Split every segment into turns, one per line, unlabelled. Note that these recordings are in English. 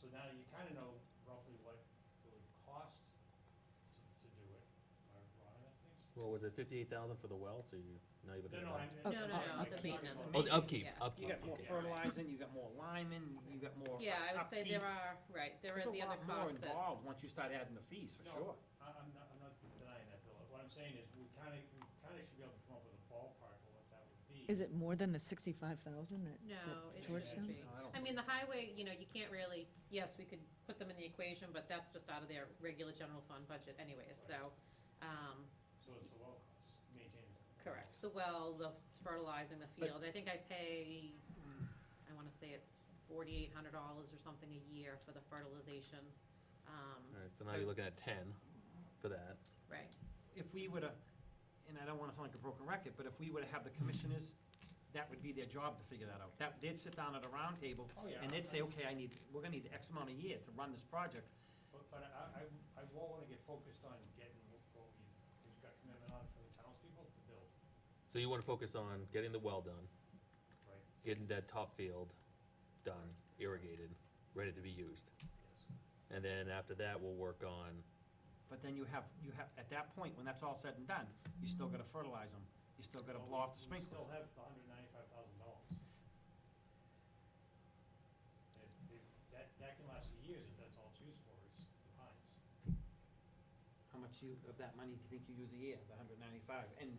So now you kinda know roughly what it would cost to, to do it, am I wrong in that, please?
Well, was it fifty-eight thousand for the well, so you, now you're looking
No,
at.
no, I'm.
No,
I'm
no,
sorry,
no,
I'm
the
talking
maintenance.
about-
Oh, the upkeep,
Yeah.
upkeep.
You got more
okay.
fertilizing, you got more liming, you got more.
Yeah, I would say there
upkeep.
are, right, there
There's
are the other costs
a lot more
that,
involved once you start adding the fees, for
No,
sure.
I, I'm not, I'm not denying that, Bill, what I'm saying is, we kinda, we kinda should be able to come up with a ballpark of what that would be.
Is it more than the sixty-five thousand that?
no,
that
it
Georgetown?
shouldn't be.
No, I don't
I mean, the highway, you know, you can't really, yes, we could put them in the equation, but that's just out of their regular general fund budget anyways, so, um,
So it's the well cost, maintaining. it.
correct. The well, the fertilizing the fields, I think I pay, hmm, I wanna say it's forty-eight hundred dollars or something a year for the fertilization. Um,
Alright, so now you're looking at ten for that.
right,
If we were to, and I don't wanna sound like a broken record, but if we were to have the commissioners, that would be their job to figure that out. That, they'd sit down at a roundtable,
Oh, yeah.
and they'd say, okay, I need, we're gonna need X amount a year to run this project.
But, but I, I, I won't wanna get focused on getting what we, we've got commitment on for the townspeople to build,
So you wanna focus on getting the well done,
right?
getting that top field done, irrigated, ready to be used.
Yes.
And then after that, we'll work on,
But then you have, you have, at that point, when that's all said and done, you still gotta fertilize them, you still gotta
Well,
blow off the
we- We still
sprinklers.
have the hundred ninety-five thousand dollars. That, that can last for years if that's all it's used for, is the pines.
How much you, of that money do you think you use a year, the hundred ninety-five, and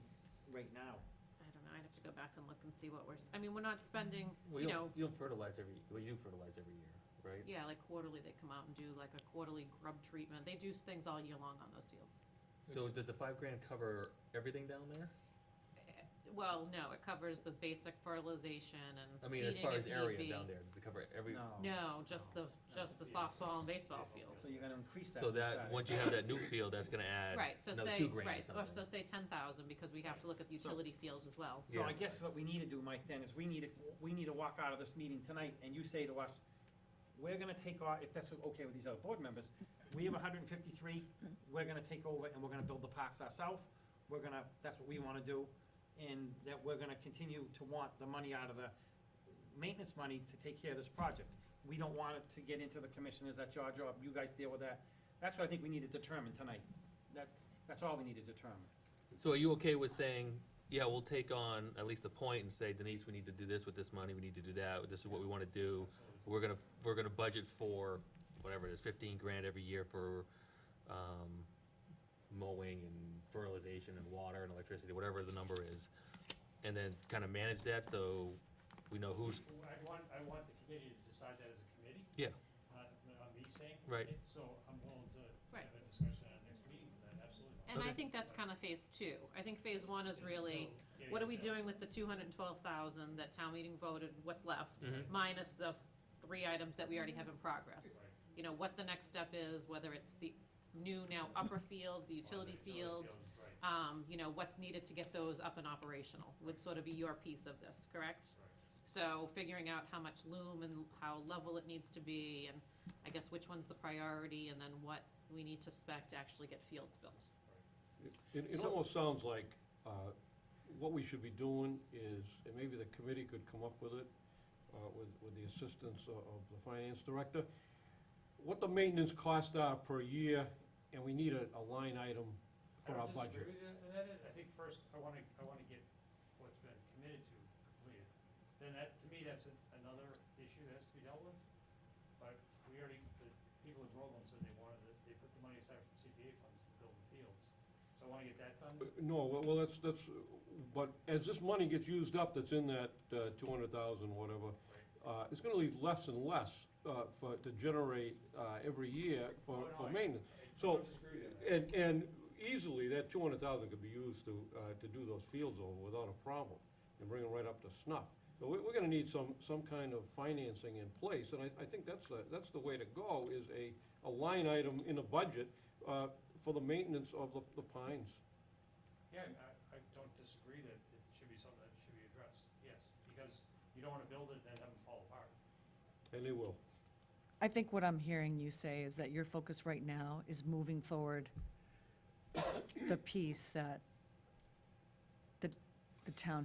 right now?
I don't know, I'd have to go back and look and see what we're, s- I mean, we're not spending,
well,
you know,
you'll, you'll fertilize every, well, you do fertilize every year, right?
Yeah, like quarterly, they come out and do like a quarterly grub treatment. They do things all year long on those fields.
So does the five grand cover everything down there?
Well, no, it covers the basic fertilization and
I mean,
seeding
as far
if
as
need
area
be.
down there, does it cover every?
No, just the, just the softball and baseball field.
So you're gonna increase that.
So
when you
that,
start.
once you have that new field, that's gonna add
Right, so
another
say,
two grand or
right, or so
something.
say ten thousand, because we have to look at the
So-
utility fields as well.
So
Yeah.
I guess what we need to do, Mike, then, is we need to, we need to walk out of this meeting tonight, and you say to us, we're gonna take our, if that's okay with these other board members, we have hundred and fifty-three, we're gonna take over and we're gonna build the parks ourselves, we're gonna, that's what we wanna do, and that we're gonna continue to want the money out of the maintenance money to take care of this project. We don't want it to get into the commissioners, that's your job, you guys deal with that. That's what I think we need to determine tonight. That, that's all we need to determine.
So are you okay with saying, yeah, we'll take on at least a point and say, Denise, we need to do this with this money, we need to do that, this is what we wanna do. We're gonna, we're gonna budget for whatever it is, fifteen grand every year for, um, mowing and fertilization and water and electricity, whatever the number is. And then kinda manage that, so we know who's,
Well, I want, I want the committee to decide that as a committee,
yeah,
not, not me saying.
Right.
it, So I'm willing to
Right.
have a discussion at our next meeting, for that, absolutely.
And I
Okay.
think that's kind of phase two. I think phase one is
It's still
really,
getting
what are we
there.
doing with the two hundred and twelve thousand that town meeting voted, what's left?
Mm-hmm.
Mhm.
Minus the three items that we already have in progress.
Right.
you know, what the next step is, whether it's the new now upper field, the utility field,
Right, right.
um, you know, what's needed to get those up and operational, would sort of be your piece of this, correct? So figuring out how much loom and how level it needs to be, and I guess which one's the priority, and then what we need to spec to actually get fields built.
It, it almost sounds like, uh, what we should be doing is, and maybe the committee could come up with it, uh, with, with the assistance of- of the finance director, what the maintenance costs are per year, and we need a, a line item for our
I don't disagree
budget.
with you in that. I think first, I want to, I want to get what's been committed to completed. Then that, to me, that's a- another issue that has to be dealt with. But we already, the people in Groveland said they wanted, it- they put the money aside for the CPA funds to build the fields. So I want to get that done.
Uh, No, well, well, that's, that's, uh, but as this money gets used up, that's in that uh, two hundred thousand, whatever, uh, it's gonna leave less and less uh, for, to generate uh, every year for,
Oh, no,
for
I-
maintenance.
I
So-
don't disagree with that.
And, and easily, that two hundred thousand could be used to, uh, to do those fields over without a problem, and bring them right up to snuff. But we, we're gonna need some, some kind of financing in place, and I, I think that's, the- that's the way to go, is a, a line item in the budget, uh, for the maintenance of the, the pines.
Yeah, and I, I don't disagree that it should be something that should be addressed, yes. Because you don't want to build it and then have them fall apart.
And they will.
I think what I'm hearing you say is that your focus right now is moving forward the piece that the, the town